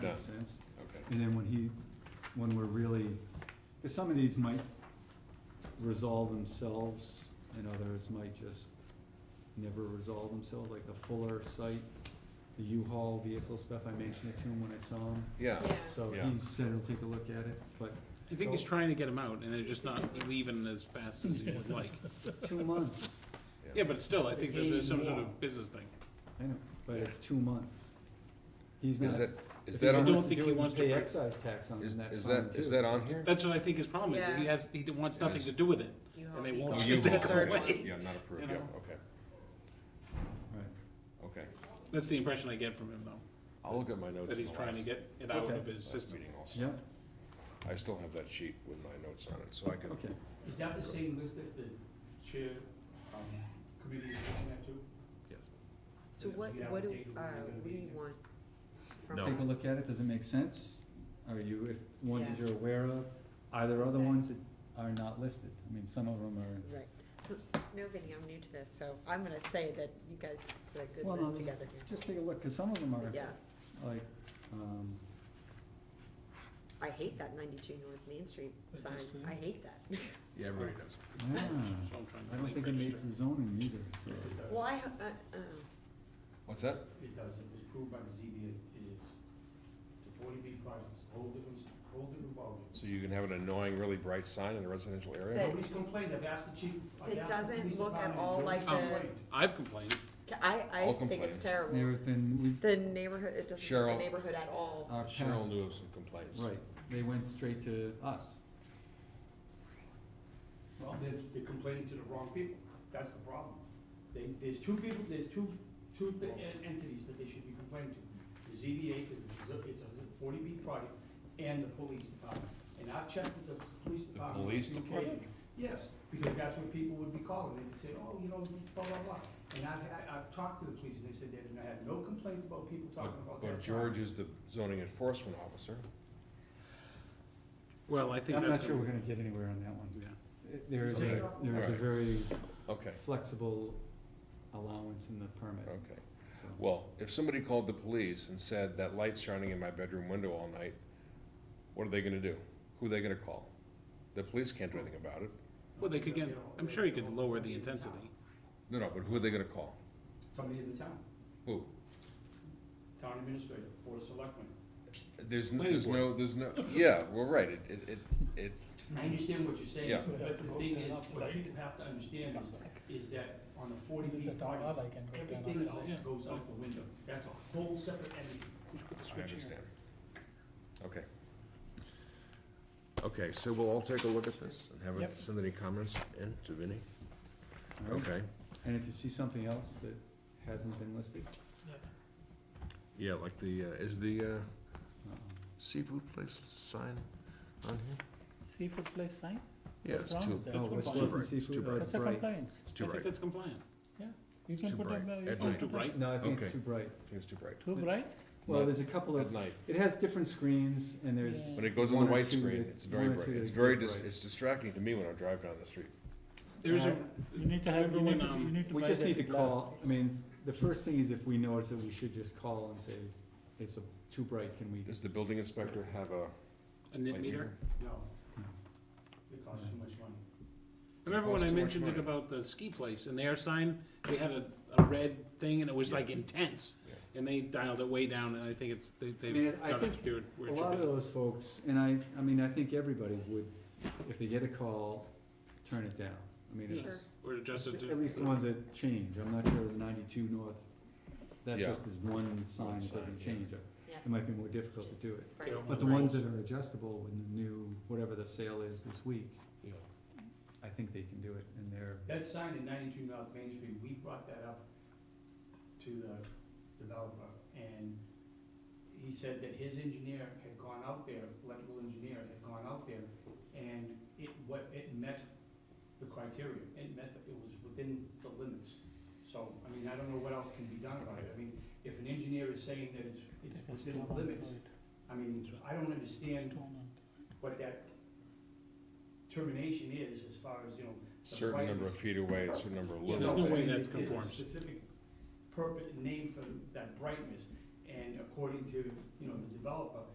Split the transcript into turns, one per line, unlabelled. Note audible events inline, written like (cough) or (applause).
No.
sense.
Okay.
And then when he, when we're really, because some of these might resolve themselves and others might just never resolve themselves, like the Fuller site, the U-Haul vehicle stuff, I mentioned it to him when I saw him.
Yeah,
So
Yeah.
he said he'll take a look at it, but
I think he's trying to get them out, and they're just not leaving as fast as he
(laughs)
would like.
it's two months,
Yeah, but still, I think that there's some sort of business thing.
I know, but it's two months. He's not.
Is that,
if
is
he
that on,
don't
wants
think
do
he
it,
wants to
Pay
put-
excise tax on
is,
him, that's
is
fine
that,
too.
is that on here?
That's what I think his problem is, that he
Yeah.
has, he wants nothing
Yes.
to do with it.
U-Haul
And they
vehicle.
won't (laughs)
Oh,
just
U-Haul,
take
right.
away.
Yeah, not approved,
You
yeah,
know?
okay,
Right.
okay.
That's the impression I get from him, though,
I'll look at my notes
that
in
he's
the
trying
last,
to get it out
Okay.
of his
last
system.
meeting also.
Yeah,
I still have that sheet with my notes on it, so I can,
okay.
Is that the same list that the chair, um, committee is looking at too?
So what, what do, uh, what do you want from us?
take a look at it, does it make sense? Are you, if, ones that
Yeah.
you're aware of, are there other
Say.
ones that are not listed? I mean, some of them are,
Right, so, no, Vinnie, I'm new to this, so I'm gonna say that you guys put a good
Well, no,
list
this-
together here.
just take a look, cause some of them are,
Yeah,
like,
(laughs)
um,
I hate that ninety-two North Main Street
Is
sign,
this good?
I hate that. (laughs)
yeah, everybody does.
yeah,
So I'm trying to
I don't
think
think it makes
register.
the zoning either, so.
Well, I, ha- uh, oh.
What's that?
It doesn't, it's proved by the ZBA, it is. It's a forty B project, it's a whole different, whole different ballgame.
So you can have an annoying, really bright sign in a residential area?
That-
Nobody's complained, I've asked the chief, I've
It
asked the
doesn't
police
look at
department,
all like
nobody's
the-
complained.
I've complained,
I, I
I'll
think it's
complain.
terrible.
There's been, we've,
The neighborhood, it doesn't look
Cheryl.
at the neighborhood at all.
our
Cheryl
past,
knew of some complaints.
right, they went straight to us.
Well, they're, they're complaining to the wrong people, that's the problem. They, there's two people, there's two, two th- en- entities that they should be complaining to. The ZBA, because it's a, it's a forty B project, and the police department. And I've checked with the police department. on
police
two
department?
occasions. Yes, because that's what people would be calling, they'd say, oh, you know, blah, blah, blah. And I've, I- I've talked to the police, and they said they didn't have no complaints about people talking about
But, but
that. sign.
George is the zoning enforcement officer.
well, I think
I'm not
that's
sure we're
gonna,
gonna get anywhere on that one.
yeah.
There is
Take it
a,
off.
there is a
Alright.
very
Okay,
flexible allowance in the permit,
okay.
so.
Well, if somebody called the police and said that light's shining in my bedroom window all night, what are they gonna do? Who are they gonna call? The police can't do anything about it.
Well, they could get,
You know,
I'm sure he could
they'll-
lower the
somebody in town.
intensity.
No, no, but who are they gonna call?
Somebody in the town,
Who?
town administrator, board of selectmen.
There's, n-
Planning
there's no, there's (laughs) no, yeah, well, right, it, it, it, it,
I understand what you're saying,
Yeah.
but the thing is, what people have to understand is, is that on the forty B project, everything else goes out the window. That's a whole separate entity.
I understand. Okay. Okay, so we'll all take a look at this and have, it- send any comments in to Vinnie.
alright?
Okay,
And if you see something else that hasn't been listed,
yeah, like the, uh, is the, uh,
uh,
seafood place sign on here?
Seafood place sign?
Yeah,
What's
it's
wrong
too,
with that?
oh,
That's
West
compliant.
Wilson
It's too
Seafood,
bright.
oh, it's
That's a
bright.
compliance.
it's
I
too
think
bright,
that's compliant. Oh,
You
too
can put
bright.
them, uh, you
At
can
night.
put
Too bright?
No, I think
Okay.
it's too bright.
I think it's too bright.
Too
But-
bright?
Well,
Not
there's a couple
At
of,
night,
it has different screens and there's,
when it goes on
one
the
or
white
two
screen,
that-
it's very
one or
bright,
two
it's
that
very,
get
dis-
bright.
it's distracting to me when I drive down the street.
There's a, um,
Uh,
You need to have, you
Remember
need to,
when,
you need to
we
buy
just
that
need to
glass.
call, I mean, the first thing is if we notice it, we should just call and say, it's a- too bright, can we?
Does the building inspector have a?
a nit
light
meter.
No, it costs too much money.
I Remember when I
Costs too much
mentioned it
money.
about the ski place and their sign, they had a, a red thing and it was like intense. And they dialed it way down and I think it's, they,
mean,
they've
I
got it
think
to it where
A
it should
lot of
be.
those folks, and I, I mean, I think everybody would, if they get a call, turn it down. I mean,
Yes.
it's,
Or adjusted to.
At least the ones that change, I'm not sure ninety-two north, that
Yeah.
just is one sign,
One
it
sign,
doesn't
yeah.
change it.
Yeah.
It might be more difficult to do it,
Right.
Yeah.
but the ones that are adjustable when the new, whatever the sale is this week,
Yeah.
I think they can do it, and they're,
That sign in ninety-two North Main Street, we brought that up to the developer, and he said that his engineer had gone out there, electrical engineer had gone out there, and it, what, it met the criteria, it met, it was within the limits. So, I mean, I don't know what else can be done about it, I mean, if an engineer is saying that it's, it's within the limits, I mean, I don't understand what that termination is as far as, you know,
Certain number of feet away, a certain number of
yeah,
there's
lumens.
no
but
way
it-
that
it- it's a
conforms.
Specific purpose, name for that brightness, And according to, you know, the developer,